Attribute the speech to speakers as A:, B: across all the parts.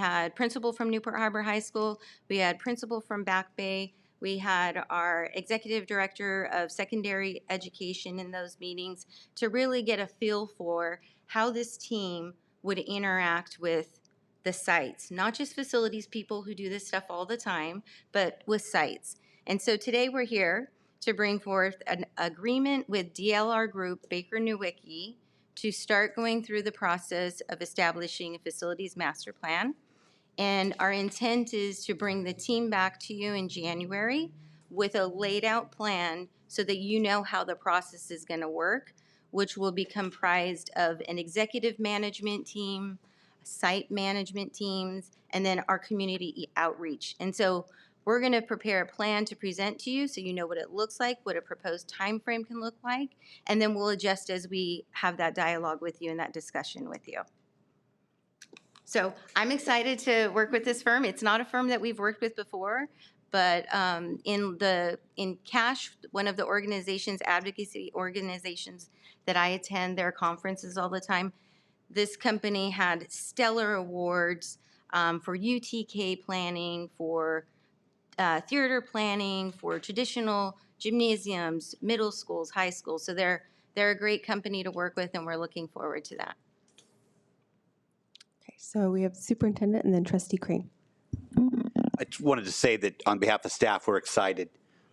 A: had principal from Newport Harbor High School, we had principal from Back Bay, we had our executive director of secondary education in those meetings to really get a feel for how this team would interact with the sites, not just facilities people who do this stuff all the time, but with sites. And so today we're here to bring forth an agreement with DLR Group Baker Newicki to start going through the process of establishing a facilities master plan. And our intent is to bring the team back to you in January with a laid-out plan so that you know how the process is going to work, which will be comprised of an executive management team, site management teams, and then our community e-, outreach. And so we're going to prepare a plan to present to you so you know what it looks like, what a proposed timeframe can look like, and then we'll adjust as we have that dialogue with you and that discussion with you. So I'm excited to work with this firm. It's not a firm that we've worked with before, but um, in the, in CASH, one of the organizations, advocacy organizations that I attend their conferences all the time, this company had stellar awards um, for UTK planning, for uh, theater planning, for traditional gymnasiums, middle schools, high schools. So they're, they're a great company to work with, and we're looking forward to that.
B: Okay, so we have superintendent and then trustee Crane.
C: I just wanted to say that on behalf of staff, we're excited.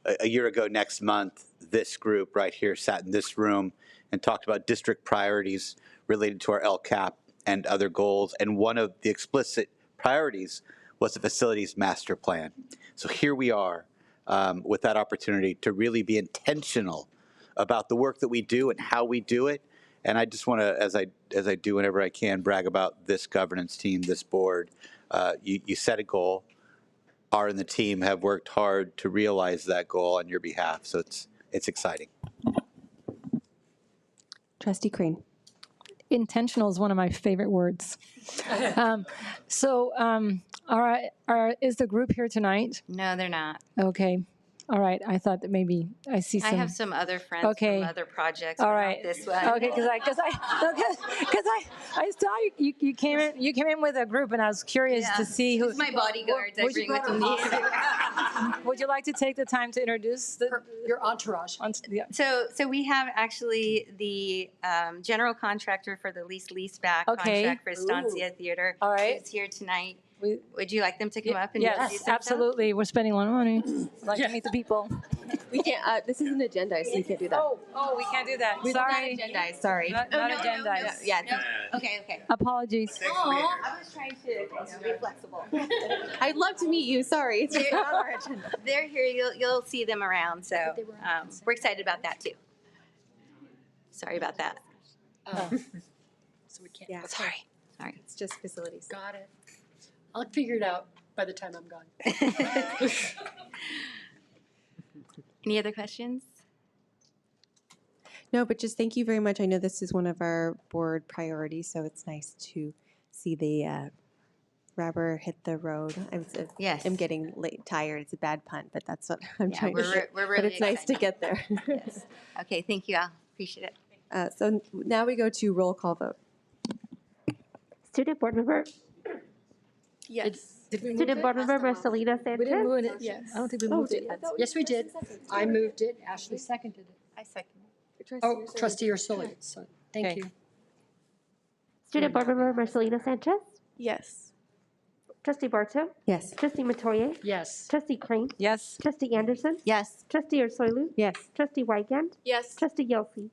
C: A, a year ago next month, this group right here sat in this room and talked about district priorities related to our LCAP and other goals. And one of the explicit priorities was the facilities master plan. So here we are um, with that opportunity to really be intentional about the work that we do and how we do it. And I just want to, as I as I do whenever I can, brag about this governance team, this board. Uh, you, you set a goal are and the team have worked hard to realize that goal on your behalf. So it's it's exciting.
B: Trustee Crane.
D: intentional is one of my favorite words. um, so, um, all right, are, is the group here tonight?
A: No, they're not.
D: Okay, all right. I thought that maybe I see some.
A: I have some other friends
D: Okay.
A: from other projects.
D: All
A: but not
D: right.
A: This one.
D: Okay, because I, because I, because I, I saw you, you, you came in, you came in with a group, and I was curious
A: Yeah.
D: to see who.
A: It's my bodyguards. I
D: would you
A: bring with
D: go to
A: me.
D: Would you like to take the time to introduce the?
E: your entourage.
D: on- yeah.
A: So, so we have actually the um, general contractor for the lease leaseback
D: Okay.
A: contract for Estancia Theater.
D: All right.
A: Who's here tonight.
D: We-
A: Would you like them to come up and introduce
D: Yes,
A: themselves?
D: absolutely. We're spending a lot of money. Like to meet the people.
E: We can't, uh, this is an agenda, so you can't do that.
D: Oh, oh, we can't do that.
E: We're not
D: Sorry.
E: agendized, sorry.
D: Not
A: Oh,
D: not
A: no, no, no,
D: agendized.
A: Yeah. no. Okay, okay.
D: Apologies.
A: Aw, I was trying to you know, be flexible.
E: I'd love to meet you, sorry. It's not on our agenda.
A: They're here. You'll, you'll see them around. So um, we're excited about that too. Sorry about that.
F: So we can't.
E: Yeah,
D: Sorry.
A: Sorry.
E: it's just facilities.
F: Got it. I'll figure it out by the time I'm gone.
A: Any other questions?
B: No, but just thank you very much. I know this is one of our board priorities, so it's nice to see the uh, rubber hit the road. I was, uh,
A: Yes.
B: I'm getting late, tired. It's a bad punt, but that's what I'm
A: Yeah,
B: trying to
A: we're,
B: say.
A: re- we're really
B: But it's nice to
A: excited.
B: get there.
A: Okay, thank you. I appreciate it.
B: Uh, So now we go to roll call vote.
G: Student Board Member,
F: Yes. Did we move
G: Student Board
F: it?
G: Member Marcelina
D: We didn't
G: Sanchez.
D: move it.
F: Yes.
D: I don't think we
B: Oh,
D: moved it yet.
F: Yes, we did.
E: Oh,
F: I moved it. Ashley seconded it.
E: I second.
F: Oh, trustee Ursula. So,
D: Okay.
F: thank you.
G: Student Board Member Marcelina Sanchez.
B: Yes.
G: Trustee Barto.
B: Yes.
G: Trustee Matoye.
F: Yes.
G: Trustee Crane.
D: Yes.
G: Trustee Anderson.
A: Yes.
G: Trustee Ursulou.
B: Yes.
G: Trustee Weigand.
E: Yes.
G: Trustee Yelsey.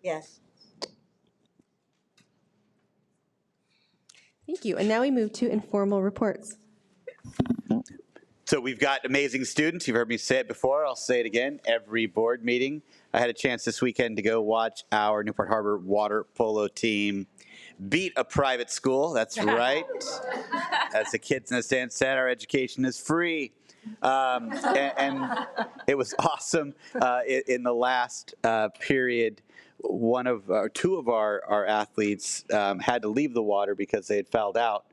B: Thank you. And now we move to informal reports.
C: So we've got amazing students. You've heard me say it before. I'll say it again every board meeting. I had a chance this weekend to go watch our Newport Harbor water polo team beat a private school. That's right. As the kids in the stands said, our education is free. Um, and, and it was awesome. Uh, in, in the last uh, period, one of or two of our, our athletes um, had to leave the water because they had fouled out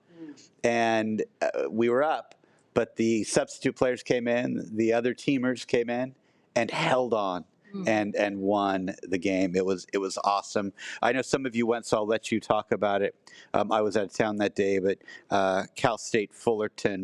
C: and uh, we were up, but the substitute players came in, the other teamers came in, and held on and and won the game. It was it was awesome. I know some of you went, so I'll let you talk about it. Um, I was out of town that day, but uh, Cal State Fullerton